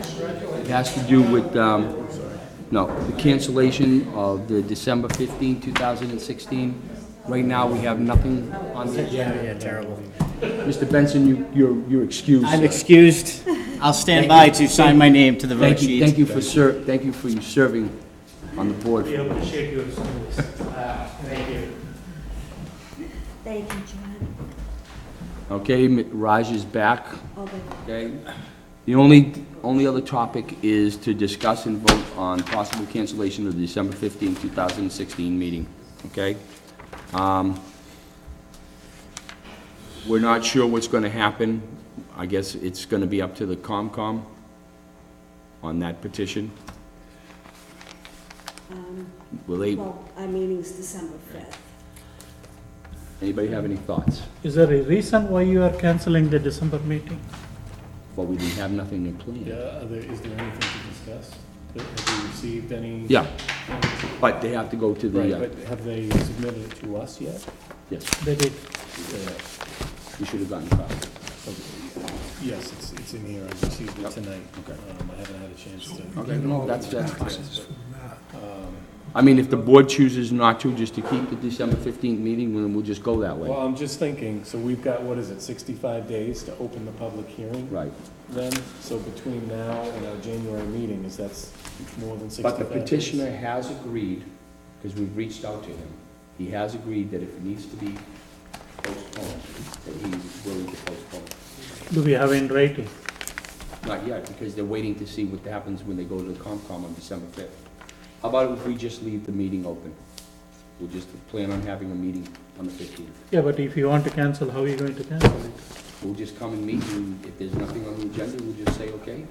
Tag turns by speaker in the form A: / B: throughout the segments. A: It has to do with, um, no, the cancellation of the December 15, 2016. Right now, we have nothing on the agenda.
B: Yeah, terrible.
A: Mr. Benson, you- you're you're excused.
B: I'm excused. I'll stand by to sign my name to the vote
A: Thank you,
B: sheet.
A: thank you for ser, thank you for you serving on the board.
C: be able to shake you some of this. Uh, Thank you.
D: Thank you, John.
A: Okay, M- Raj is back,
D: All the
A: okay? The only, only other topic is to discuss and vote on possible cancellation of the December 15, 2016 meeting, okay? Um, We're not sure what's gonna happen. I guess it's gonna be up to the COMCOM on that petition. Will they,
D: Well, our meeting's December 5th.
A: anybody have any thoughts?
E: Is there a reason why you are canceling the December meeting?
A: But we didn't have nothing in plan.
F: Yeah, are there, is there anything to discuss? Have you received any?
A: Yeah, but they have to go to
F: Right,
A: the, uh,
F: but have they submitted it to us yet?
A: yes,
E: They did.
A: we should have gotten copies.
F: Yes, it's, it's in here, I received it tonight. Um, I haven't had a chance to.
A: Okay, no, that's, that's fine. Um, I mean, if the board chooses not to, just to keep the December 15th meeting, then we'll just go that
F: Well,
A: way.
F: I'm just thinking, so we've got, what is it, sixty-five days to open the public hearing?
A: Right.
F: Then, so between now and our January meeting, is that's more than
A: But
F: sixty-five
A: the
F: days?
A: petitioner has agreed, because we've reached out to him, he has agreed that if it needs to be postponed, that he's willing to postpone.
E: Do we have in writing?
A: Not yet, because they're waiting to see what happens when they go to the COMCOM on December 5th. How about if we just leave the meeting open? We'll just plan on having a meeting on the 15th.
E: Yeah, but if you want to cancel, how are you going to cancel it?
A: We'll just come and meet, and if there's nothing on the agenda, we'll just say, okay,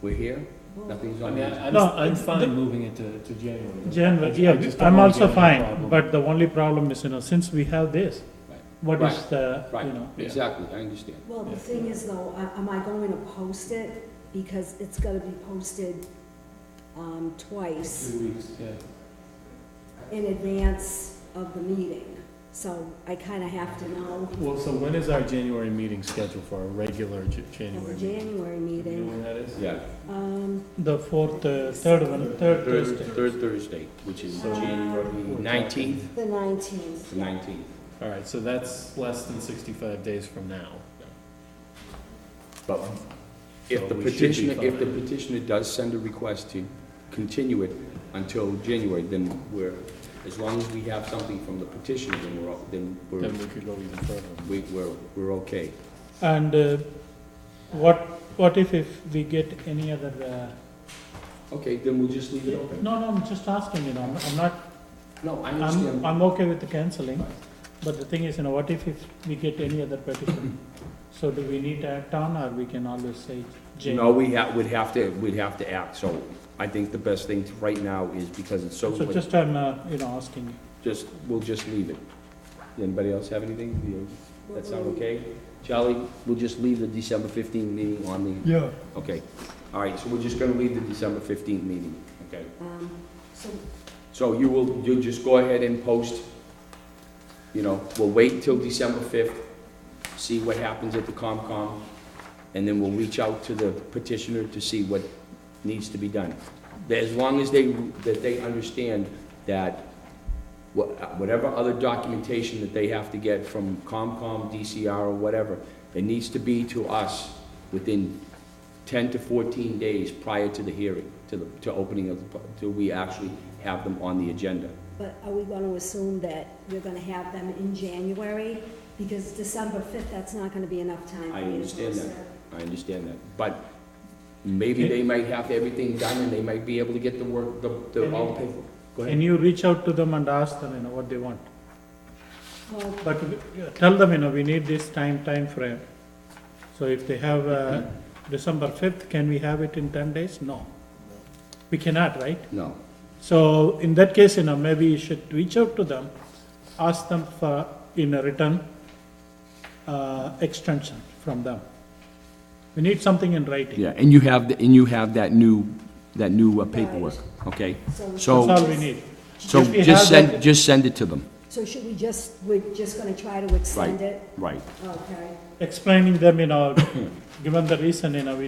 A: we're here, nothing's
F: I
A: on
F: mean,
A: the
F: I-
A: agenda.
F: I'm,
E: No,
F: I'm
E: it's
F: fine
E: the-
F: moving it to, to January.
E: January,
F: I ju- I
E: yeah,
F: just don't
E: I'm
F: wanna
E: also
F: get in a
E: fine,
F: problem.
E: but the only problem is, you know, since we have this,
A: Right.
E: what is
A: Right.
E: the, you
A: Right,
E: know?
F: yeah.
A: exactly, I understand.
D: Well, the thing is though, a- am I going to post it? Because it's gonna be posted um, twice
F: Two weeks, yeah.
D: in advance of the meeting. So I kinda have to know
F: Well, so when is our January meeting scheduled for, our regular J-
D: at the
F: January meeting?
D: January
F: You know
D: meeting.
F: when that is?
A: Yeah.
D: Um,
E: The fourth, uh, third one,
A: Third,
E: third Thursday.
A: third Thursday, which is
D: Uh,
A: January 19th,
D: the 19th.
A: the 19th.
F: All right, so that's less than sixty-five days from now.
A: But If
F: So
A: the
F: we should be
A: petitioner, if the
F: fine.
A: petitioner does send a request to continue it until January, then we're, as long as we have something from the petitioner, then we're, all- then we're,
F: Then we could go even further.
A: we- we're, we're okay.
E: And uh, what, what if, if we get any other, uh,
A: Okay, then we'll just leave it open.
E: no, no, I'm just asking, you know, I'm I'm not
A: No, I
E: I'm,
A: understand.
E: I'm okay with the canceling, but the thing is, you know, what if, if we get any other petition? So do we need to act on, or we can always say J?
A: No, we ha, would have to, we'd have to act, so I think the best thing to- right now is because it's so,
E: So
A: late,
E: just I'm, uh, you know, asking.
A: just, we'll just leave it. Anybody else have anything? You- That sound okay? Charlie, we'll just leave the December fifteenth meeting on the
E: Yeah.
A: Okay, all right, so we're just gonna leave the December fifteenth meeting, okay?
D: Um, So
A: So you will, you'll just go ahead and post, you know, we'll wait till December fifth, see what happens at the COMCOM, and then we'll reach out to the petitioner to see what needs to be done. That As long as they, that they understand that wha- whatever other documentation that they have to get from COMCOM, DCR, or whatever, it needs to be to us within 10 to 14 days prior to the hearing, to the, to opening of, the pu- till we actually have them on the agenda.
D: But are we going to assume that you're going to have them in January? Because December 5th, that's not going to be enough time.
A: I
D: for you to
A: understand
D: post
A: that, I understand that. But maybe they might have everything done and they might be able to get the work, the, the, all the paperwork. Go ahead.
E: And you reach out to them and ask them, you know, what they want.
D: Well,
E: But we- uh, tell them, you know, we need this time, time frame. So if they have, uh, December fifth, can we have it in ten days? No. We cannot, right?
A: No,
E: So in that case, you know, maybe you should reach out to them, ask them for, in a written, uh, extension from them. We need something in writing.
A: yeah, and you have, and you have that new, that new uh,
D: paperwork,
A: okay?
D: So-
A: So-
E: That's all we need.
A: So
E: If we
A: just
E: have that-
A: send, just send it to them,
D: So should we just, we're just going to try to extend it?
A: right.
D: Okay.
E: Explaining them, you know, given the reason, you know, we